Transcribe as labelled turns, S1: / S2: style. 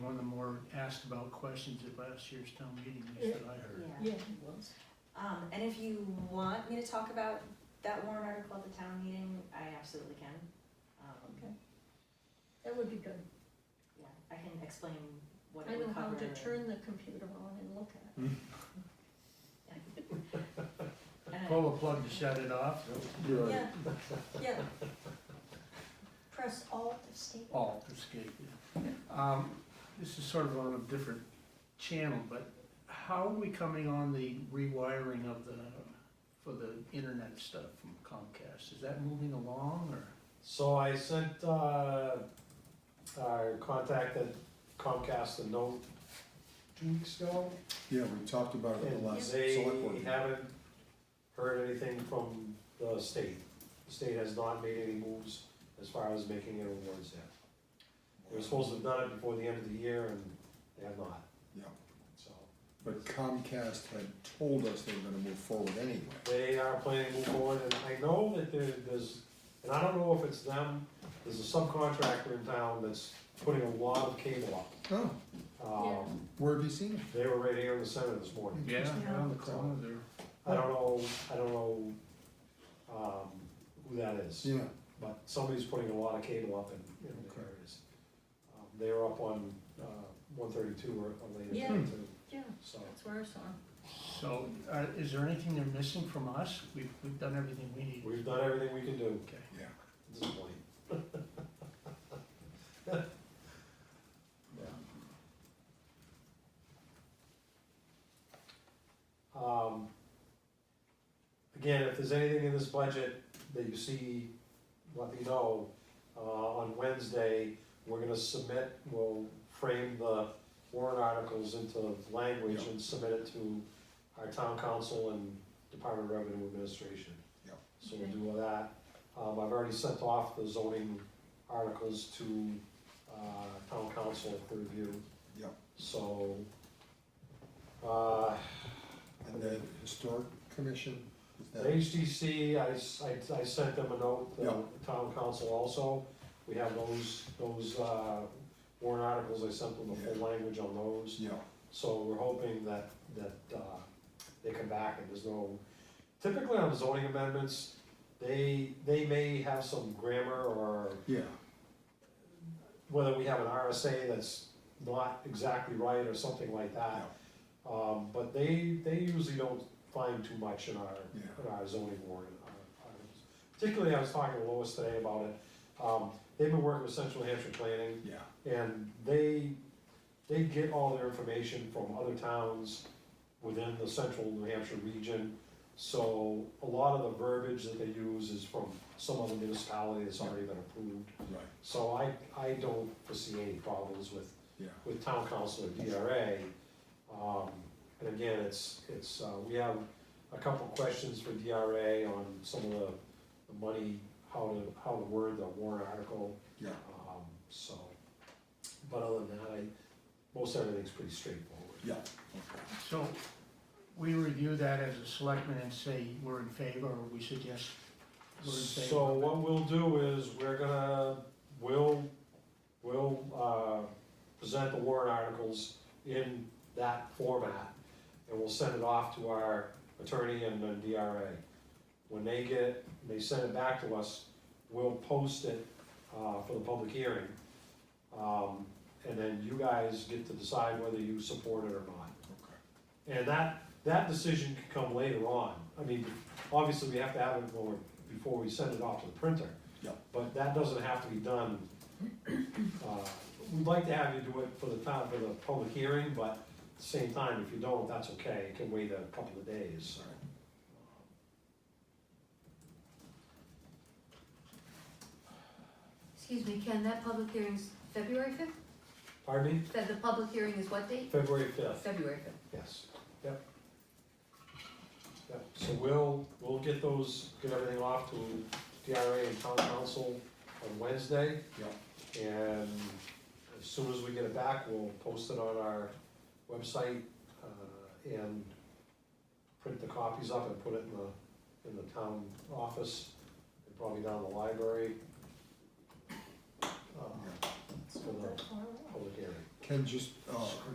S1: asked about questions at last year's town meeting, is what I heard.
S2: Yeah,
S3: Yeah.
S2: he was.
S3: Um, and if you want me to talk about that warrant article at the town meeting, I absolutely can. Um,
S2: Okay. That would be good.
S3: yeah, I can explain what
S2: I
S3: it
S2: know
S3: would
S2: how
S3: cover.
S2: to
S3: and-
S2: turn the computer on and look at
S3: and I-
S1: Pull a plug to shut it off.
S2: it.
S4: Right.
S2: Yeah, yeah. Press Alt Escape.
S1: Alt escape. Um, this is sort of on a different channel, but how are we coming on the rewiring of the, for the internet stuff from Comcast? Is that moving along or?
S4: So I sent, uh, I contacted Comcast a note two weeks ago.
S5: Yeah, we talked about it in
S4: And
S5: the last
S4: they
S5: select board. meeting.
S4: haven't heard anything from the state. The state has not made any moves as far as making any awards yet. They were supposed to have done it before the end of the year and they have not.
S5: Yeah.
S4: So
S5: But Comcast had told us they were gonna move forward anyway.
S4: they are planning to move forward and I know that there, there's, and I don't know if it's them, there's a subcontractor in town that's putting a lot of cable up.
S5: Oh,
S4: Um,
S5: where have you seen it?
S4: they were right here in the center this morning.
S1: Around the corner there.
S4: I don't know, I don't know, um, who that is,
S5: Yeah,
S4: but somebody's putting a lot of cable up in, in the
S5: Okay.
S4: areas. Um, They were up on, uh, one thirty-two or or later
S2: Yeah.
S4: than two,
S2: Yeah,
S4: so.
S2: that's where I saw him.
S1: So, uh, is there anything they're missing from us? We've, we've done everything we need.
S4: We've done everything we can do
S1: Okay.
S5: yeah.
S4: at this point. Um, Again, if there's anything in this budget that you see, let me know. Uh, on Wednesday, we're gonna submit, we'll frame the warrant articles into language and submit it to our town council and Department of Revenue Administration.
S5: Yeah.
S4: So we'll
S2: Okay.
S4: do all that. Um, I've already sent off the zoning articles to, uh, town council for review.
S5: Yeah.
S4: So, uh,
S5: And then Historic Commission, is
S4: The
S5: that,
S4: HDC, I, s- I- I sent them a note, the
S5: Yeah.
S4: town council also, we have those, those, uh, warrant articles, I sent them the full language on those.
S5: yeah,
S4: So we're hoping that, that, uh, they come back and there's no, typically on zoning amendments, they, they may have some grammar or
S5: yeah,
S4: whether we have an RSA that's not exactly right or something like that. Um, but they, they usually don't find too much in our,
S5: yeah,
S4: in our zoning warrant uh, items. Particularly, I was talking to Lois today about it, um, they've been working with Central Hampshire Planning,
S5: yeah,
S4: and they, they get all their information from other towns within the central New Hampshire region, so a lot of the verbiage that they use is from some other municipality that's already been approved.
S5: right,
S4: So I, I don't foresee any problems with
S5: yeah,
S4: with town council or DRA. Um, and again, it's, it's, uh, we have a couple questions for DRA on some of the, the money, how to, how to word the warrant article,
S5: yeah,
S4: um, so. But other than that, I, most everything's pretty straightforward.
S5: yeah.
S1: So we review that as a selectman and say we're in favor, or we suggest we're in favor.
S4: So what we'll do is, we're gonna, we'll, we'll, uh, present the warrant articles in that format, and we'll send it off to our attorney and the DRA. When they get, it, they send it back to us, we'll post it, uh, for the public hearing. Um, and then you guys get to decide whether you support it or not. And that, that decision could come later on. I mean, obviously, we have to have it more before we send it off to the printer.
S5: Yep.
S4: But that doesn't have to be done. uh, We'd like to have you do it for the time, for the public hearing, but at the same time, if you don't, that's okay. It can wait a couple of days.
S5: Sorry.
S6: Excuse me, Ken, that public hearing's February fifth?
S4: Pardon me?
S6: That the public hearing is what date?
S4: February fifth,
S6: February fifth.
S4: yes. Yep. Yep, so we'll, we'll get those, get everything off to DRA and town council on Wednesday.
S5: Yeah,
S4: And as soon as we get it back, we'll post it on our website, uh, and print the copies up and put it in the, in the town office, and probably down the library. uh,
S5: yeah,
S4: For the public hearing.
S1: Oh,
S5: Ken just, uh,